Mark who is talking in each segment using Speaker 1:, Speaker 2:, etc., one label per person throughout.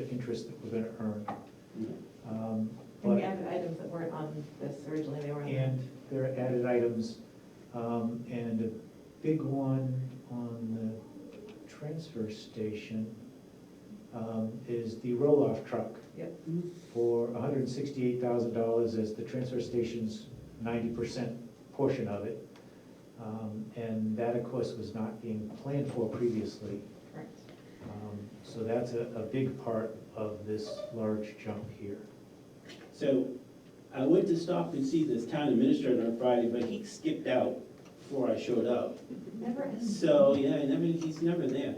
Speaker 1: interest that we're gonna earn. Um,
Speaker 2: And we
Speaker 1: But,
Speaker 2: added items that weren't on this originally, they were on.
Speaker 1: and there are added items, um, and a big one on the transfer station um, is the roll-off truck
Speaker 2: Yep,
Speaker 1: for hundred and sixty-eight thousand dollars as the transfer station's ninety percent portion of it. Um, And that, of course, was not being planned for previously.
Speaker 2: correct.
Speaker 1: Um, So that's a, a big part of this large jump here.
Speaker 3: So I went to stop and see this town administrator on Friday, but he skipped out before I showed up.
Speaker 2: Never ends.
Speaker 3: So, yeah, I never, he's never there.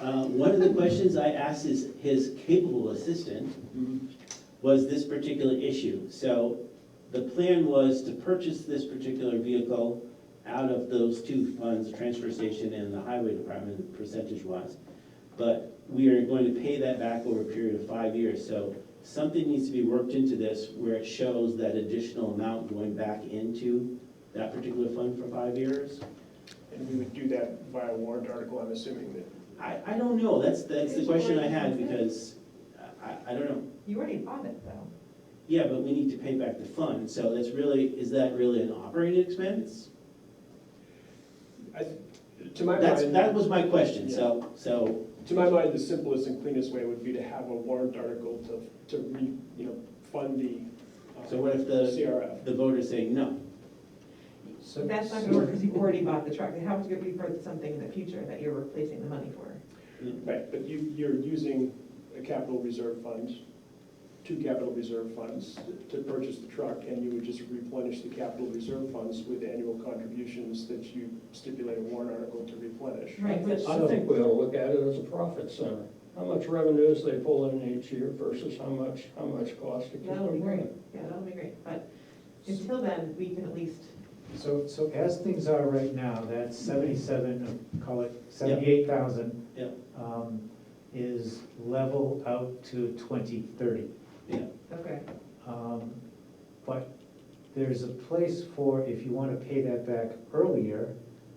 Speaker 3: Uh, One of the questions I asked his, his capable assistant was this particular issue. So the plan was to purchase this particular vehicle out of those two funds, the transfer station and the highway department percentage-wise. But we are going to pay that back over a period of five years. So something needs to be worked into this where it shows that additional amount going back into that particular fund for five years.
Speaker 4: And we would do that via warrant article, I'm assuming that.
Speaker 3: I, I don't know, that's, that's the question I had, because uh, I, I don't know.
Speaker 2: You already bought it, though.
Speaker 3: Yeah, but we need to pay back the fund, so that's really, is that really an operating expense?
Speaker 4: I- To my
Speaker 3: That's, that
Speaker 4: mind,
Speaker 3: was my question, so, so,
Speaker 4: to my mind, the simplest and cleanest way would be to have a warrant article to, to re, you know, fund the. uh,
Speaker 3: so what if the,
Speaker 4: CRF.
Speaker 3: the voter's saying no?
Speaker 1: So-
Speaker 2: That's not gonna work, because you've already bought the truck, it has to be for something in the future that you're replacing the money for.
Speaker 4: Right, but you, you're using a capital reserve fund, two capital reserve funds to purchase the truck, and you would just replenish the capital reserve funds with annual contributions that you stipulate a warrant article to replenish.
Speaker 2: Right, which,
Speaker 5: I think we ought to look at it as a profit center. How much revenues they pull in each year versus how much, how much cost to keep
Speaker 2: that'll be
Speaker 5: them
Speaker 2: great,
Speaker 5: running.
Speaker 2: yeah, that'll be great, but until then, we can at least,
Speaker 1: So, so as things are right now, that seventy-seven, call it seventy-eight thousand. um,
Speaker 3: Yep.
Speaker 1: Is level out to twenty thirty.
Speaker 3: Yeah,
Speaker 2: okay,
Speaker 1: Um, But there's a place for, if you wanna pay that back earlier,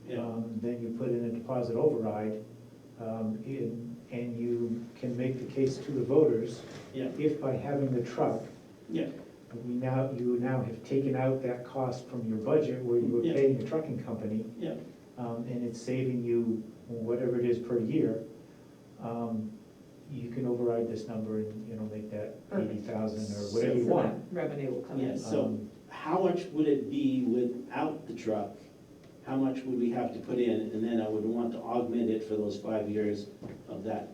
Speaker 3: yeah,
Speaker 1: um, then you put in a deposit override. um, in- And you can make the case to the voters,
Speaker 3: yeah,
Speaker 1: if by having the truck,
Speaker 3: yeah,
Speaker 1: we now, you now have taken out that cost from your budget where you were
Speaker 3: Yeah.
Speaker 1: paying the trucking company.
Speaker 3: yeah,
Speaker 1: um, and it's saving you whatever it is per year, um, you can override this number and, you know, make that
Speaker 2: Perfect.
Speaker 1: eighty thousand or uh, whatever
Speaker 2: so
Speaker 3: There
Speaker 1: you
Speaker 2: that
Speaker 1: want.
Speaker 2: revenue will come in.
Speaker 3: yes, so
Speaker 1: Um,
Speaker 3: how much would it be without the truck? How much would we have to put in, and then I would want to augment it for those five years of that,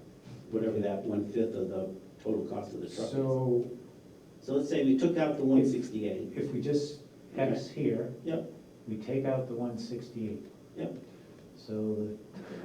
Speaker 3: whatever that one-fifth of the total cost of the truck is. So
Speaker 1: So
Speaker 3: let's say we took out the one sixty-eight,
Speaker 1: if we just X here,
Speaker 3: Yep.
Speaker 1: we take out the one sixty-eight.
Speaker 3: Yep.
Speaker 1: So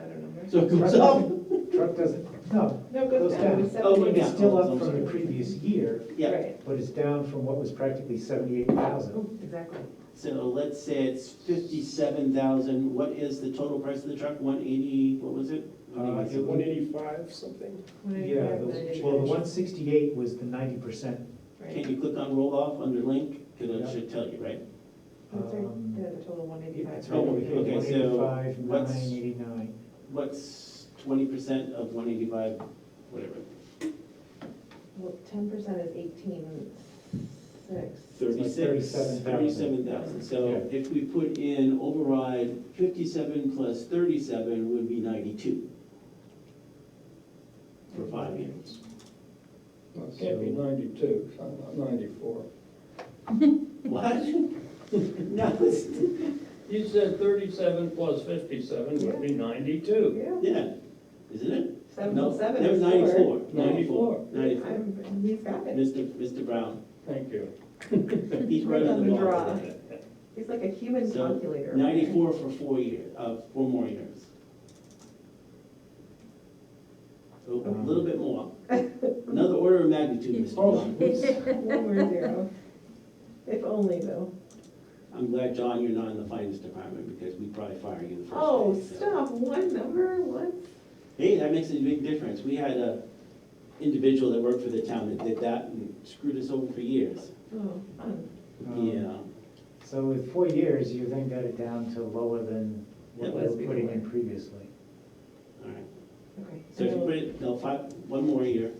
Speaker 2: I don't know.
Speaker 3: so it goes up.
Speaker 1: the truck doesn't, no,
Speaker 2: No, it goes
Speaker 1: Goes
Speaker 2: down, it was
Speaker 1: down.
Speaker 3: Oh,
Speaker 2: seventy.
Speaker 3: yeah.
Speaker 1: it's still
Speaker 3: I'm
Speaker 1: up from
Speaker 3: sorry.
Speaker 1: the previous year,
Speaker 3: Yeah,
Speaker 2: Right,
Speaker 1: but it's down from what was practically seventy-eight thousand.
Speaker 2: Ooh, exactly,
Speaker 3: so let's say it's fifty-seven thousand, what is the total price of the truck, one eighty, what was it?
Speaker 1: Uh, it
Speaker 4: One eighty-five something?
Speaker 1: Yeah, the- well, the one sixty-eight was the ninety percent.
Speaker 2: Right.
Speaker 3: Can you click on roll off under link, cause
Speaker 1: Yeah.
Speaker 3: it should tell you, right?
Speaker 2: That's right, Oh, yeah, the total one eighty-five.
Speaker 1: It's right over here,
Speaker 3: Okay,
Speaker 1: one
Speaker 3: so
Speaker 1: eighty-five, nine
Speaker 3: what's-
Speaker 1: eighty-nine.
Speaker 3: What's twenty percent of one eighty-five, whatever,
Speaker 2: Well, ten percent is eighteen six.
Speaker 3: thirty-six,
Speaker 1: 37,000.
Speaker 3: thirty-seven thousand, so
Speaker 1: Yeah.
Speaker 3: if we put in override, fifty-seven plus thirty-seven would be ninety-two. For five years,
Speaker 5: Well, It can't be ninety-two, it's not- ninety-four.
Speaker 3: what? No, it's,
Speaker 5: You said thirty-seven plus fifty-seven would be ninety-two.
Speaker 2: Yeah,
Speaker 3: yeah, isn't it?
Speaker 2: seven
Speaker 3: No,
Speaker 2: plus seven
Speaker 3: no,
Speaker 2: is four.
Speaker 3: Ninety-four, ninety-four,
Speaker 5: Ninety-four.
Speaker 3: ninety-four.
Speaker 2: I'm, he's got it,
Speaker 3: Mr. Mr. Brown,
Speaker 5: Thank you.
Speaker 3: he's right on the
Speaker 2: Right on the
Speaker 3: ball.
Speaker 2: he's like a human
Speaker 3: So,
Speaker 2: calculator. right there.
Speaker 3: Ninety-four for four years, uh, four more years. A a little bit more. Another order of magnitude, Mr.
Speaker 2: Oh.
Speaker 3: Brown.
Speaker 2: One more zero. If only though.
Speaker 3: I'm glad, John, you're not in the finance department because we'd probably fire you the first day.
Speaker 2: Oh,
Speaker 3: so.
Speaker 2: stop, one number, what?
Speaker 3: Hey, that makes a big difference. We had a individual that worked for the town that did that and screwed us over for years.
Speaker 2: Oh, fun.
Speaker 1: Um,
Speaker 3: Yeah,
Speaker 1: So with four years, you then got it down to lower than
Speaker 3: It
Speaker 1: what we
Speaker 2: was
Speaker 1: were putting in
Speaker 2: before.
Speaker 1: previously.
Speaker 3: all right.
Speaker 2: okay.
Speaker 3: So if you put it, no, five, one more year,